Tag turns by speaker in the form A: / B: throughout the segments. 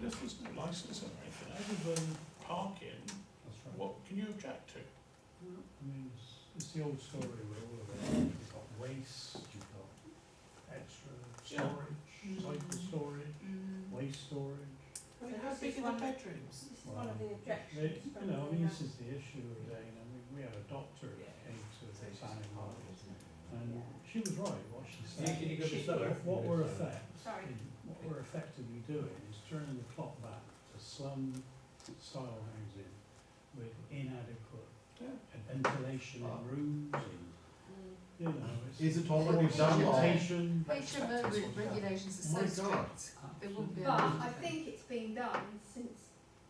A: there's no licensing or anything, other than parking,
B: That's right.
A: what can you object to?
B: I mean, it's, it's the old story where all of it, you've got waste, you've got extra
A: Yeah.
B: storage,
C: Mm.
B: cycle storage,
C: Mm.
B: waste storage.
C: Well, how this big is are the one-
A: bedrooms?
C: This is one of the
B: Well,
C: objections
B: they-
C: from
B: You know, I
C: the,
B: mean,
C: uh,
B: this is the issue again, I mean, we had a doctor who
C: Yeah.
B: came to
D: Oh
C: So it's
B: this
C: just
B: animal,
C: part of it, isn't it?
B: and
C: Yeah.
B: she was right, what she
C: Yeah,
B: said.
C: can you go to slower?
B: What- What we're effect,
C: Sorry.
B: what we're effectively doing is turning the clock back to slum style housing with inadequate
A: Yeah.
B: ventilation
C: Ah.
B: in rooms and
C: Mm.
B: You know,
D: Is
B: it's
D: it already done or?
B: vegetation.
E: HMO re- regulations
D: My
E: are so
D: God.
E: strict, they wouldn't be
C: But
E: able
C: I think it's been done since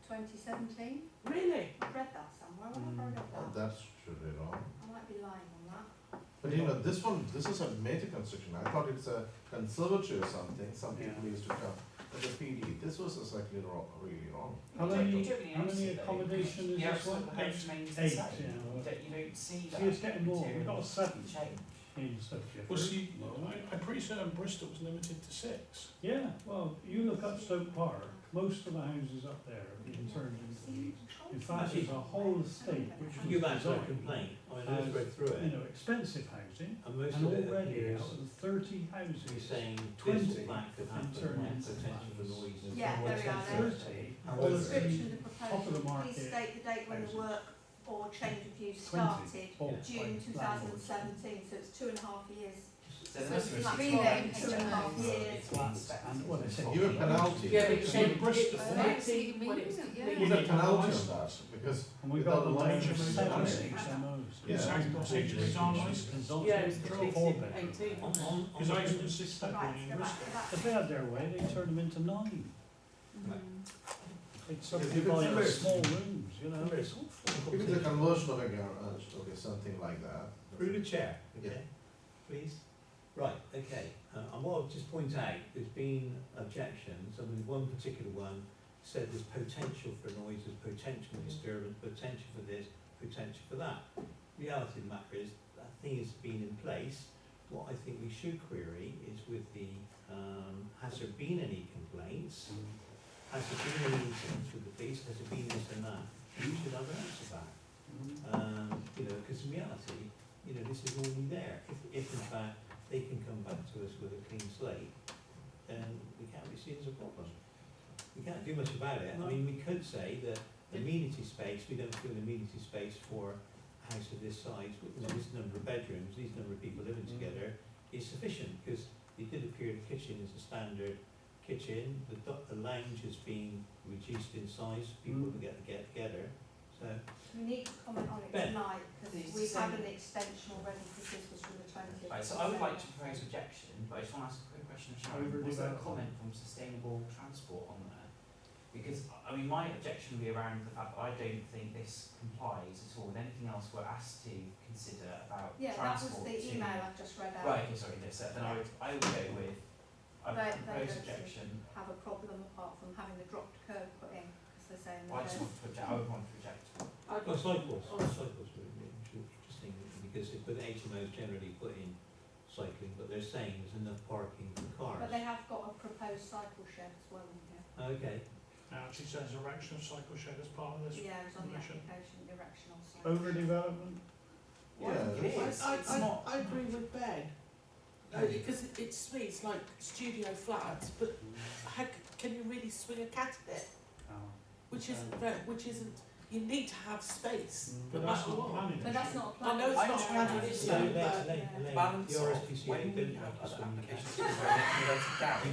C: twenty seventeen. Really? I read that somewhere,
B: Mm.
C: where have I read that?
D: Oh, That's really wrong.
C: I might be lying on that.
D: But you know, this one, this is a major construction. I thought it's a conservatory or something. Some people used to come. But the PD, this was exactly wrong, really wrong.
B: How many, how many accommodation is this one? Eight. Eight, yeah.
F: That you don't see that.
B: See, it's getting more, we've got a seven
F: Change.
B: in Stoke
A: Well, see,
B: Gifford.
A: I, I'm pretty certain Bristol was limited to six.
B: Yeah, well, you look up Stoke Park, most of the houses up there have been turned into these. Mm. In fact, there's a whole estate which was
G: You guys don't
B: designed,
G: complain, I mean,
B: as,
G: I've read through
B: You
G: it,
B: know, expensive housing,
G: and most
B: and
G: of it
B: already
G: appears
B: out of thirty houses.
G: to be saying this
B: 20
G: lack of
B: in terms
G: happen, lack
B: of
G: potential for noise. and
C: Yeah,
G: so on,
C: there we are,
G: so on.
B: Thirty,
G: However,
C: Description of the
B: top of the
C: proposal, please
B: market
C: state the date when the
B: houses.
C: work or change of use started,
B: twenty, Oh, bought by
C: June two thousand and
B: landlords.
C: seventeen, so it's two and a half years.
F: So
E: So
F: that's
E: it's
F: really
E: like
F: it's
E: being
F: all
E: there
F: right.
E: in two and a half
F: It's
C: years.
F: flat specs.
B: And what they said.
D: You a penalty.
F: Yeah, but
A: you
F: it's
A: said
F: in
A: Bristol.
F: Bristol.
E: to. See, what it's-
D: Was
E: yeah.
D: a penalty on that because
B: And we've got the
D: Without
B: range of
A: licensing,
B: seven
A: yeah.
B: HMOs.
D: Yeah.
A: Exact procedure is on license.
F: Yeah, it's
B: Consultants, four
F: completed
B: bedrooms.
F: eighteen.
G: On, on, on.
A: Because I used to six
C: Right,
A: bedroom in
C: go back
A: Bristol.
C: to that.
B: If they had their way, they turned them into nine.
C: Mm.
B: They'd
D: you can
B: subdivide them into
D: convert-
B: small rooms, you know, it's
D: if
B: awful.
D: it's a conversion of a garage, okay, something like that.
G: Through the chair,
D: Yeah.
G: okay, please. Right, okay, uh, and what I'll just point out, there's been objections, I mean, one particular one said there's potential for noise, there's potential for disturbance, potential for this, potential for that. Reality of the matter is, that thing has been in place, what I think we should query is with the, um, has there been any complaints? Has there been any incidents with the police, has there been this and that? You should have an answer back
B: Mm-hmm.
G: um, you know, because in reality, you know, this is already there. If, if in fact they can come back to us with a clean slate, then we can't be seen as a problem. We can't do much about it. I mean, we could say that amenity space, we don't feel amenity space for a house of this size, with this number of bedrooms, these number of people living together, is sufficient, because it did appear the kitchen is a standard kitchen, the, do- the lounge has been reduced in size, people
B: Mm.
G: can get, get together, so.
C: We need to comment on it
G: Ben.
C: tonight,
F: Please
C: because we've had
F: say-
C: an extension already, because this was from the twentieth.
F: Right, so I would like to propose objection, but I just want to ask a quick question of Sharon. Was there a
B: Overdevelopment.
F: comment from sustainable transport on there? Because, I mean, my objection would be around the fact that I don't think this complies at all with anything else we're asked to consider about
C: Yeah, that was
F: transport.
C: the
F: to-
C: email I've just read out.
F: Right, okay, sorry, yes, so then I would, I would go with, I
C: Right, right,
F: would propose
C: right,
F: objection.
C: Have a problem apart from having the dropped curb put in, because they're saying
F: Well, I just
C: that.
F: want to object, I would want to object.
G: Oh, cycles, oh, cycles would be interesting, because they put HMOs generally put in cycling, but they're saying there's enough parking for
C: But they
G: cars.
C: have got a proposed cycle shed as well in here.
G: Okay,
A: Now, it says erection of cycle shed as part of this.
C: Yeah, it's on the
A: Erection.
C: application, erection of cycle.
B: Overdevelopment,
D: Yeah,
F: Well, it
D: that's-
F: is, it's not. I agree with Ben.
H: Because it, it smells like studio flats, but how c- can you really swing a cat in it? Which isn't very, which isn't. You need to have space.
A: But that's not planning.
C: But that's not a
H: I
C: plan.
H: know it's
F: I
H: not
F: know,
H: planning,
F: Oh, it's
H: it's
G: so
F: not,
H: not.
G: Elaine,
H: But
G: Elaine, Elaine,
F: Balance
G: the
F: of
G: RSPCA
F: when we
G: didn't
F: have
G: have us
F: other
G: on the
F: applications,
G: case.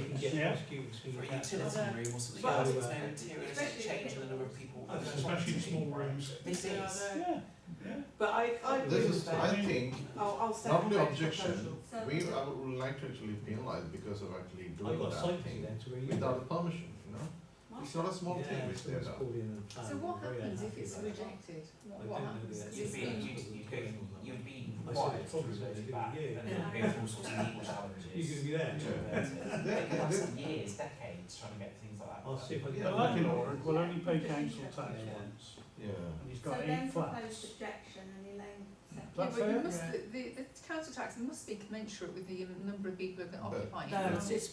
G: You can
F: garage.
G: get
B: Yeah.
G: prosecuted for
F: For a
G: that.
F: utility room or something uh,
H: But-
F: else, there's no interior
C: Especially
F: change in the number of
C: if-
F: people.
G: Oh,
A: Especially in small rooms.
F: This
H: Yeah,
F: is.
H: I know.
B: yeah, yeah.
H: But I, I agree
D: This
H: with
D: is, I
H: that.
D: think,
C: Oh,
H: I'll, I'll second
D: not only
H: those
D: objection,
H: proposals.
C: So- uh,
D: we, I would like to actually penalize because of actually
G: I
D: doing
G: got
D: that
G: cycling
D: thing
G: then to where you.
D: without a permission, you know?
C: Why?
D: It's not a small
G: Yeah,
D: thing which they've
G: someone's
D: done.
G: called in and
E: So
G: planned, I'm
E: what
G: Um, very
E: happens if
G: unhappy
E: it's
G: about it.
E: rejected?
G: I
E: What,
G: don't
E: what
G: know the
E: happens? Does
F: You'd
G: actual
E: it
F: be,
G: figure.
E: mean-
F: you'd, you'd go, you'd be
G: I
F: required to
G: said it's
F: go
G: obvious,
F: back,
G: yeah, yeah.
F: and then there'd be all sorts of legal
G: You're
F: challenges.
G: gonna be there.
F: Yeah.
D: Yeah,
F: They could
D: yeah,
F: last years, decades trying to get things like that.
G: I'll see if I can.
D: Yeah,
B: But
D: like in
B: that lord will only pay
C: Yeah.
B: council tax
G: Yeah.
B: once,
D: Yeah.
B: and he's
C: So
B: got
C: then
B: eight
C: proposed
B: flats.
C: objection and Elaine seconded.
E: Yeah,
B: That's
E: but you
B: it,
E: must,
B: yeah.
E: the, the the council tax must be commensurate with the um, number of people that
D: But-
E: occupy it.
H: No, it's, it's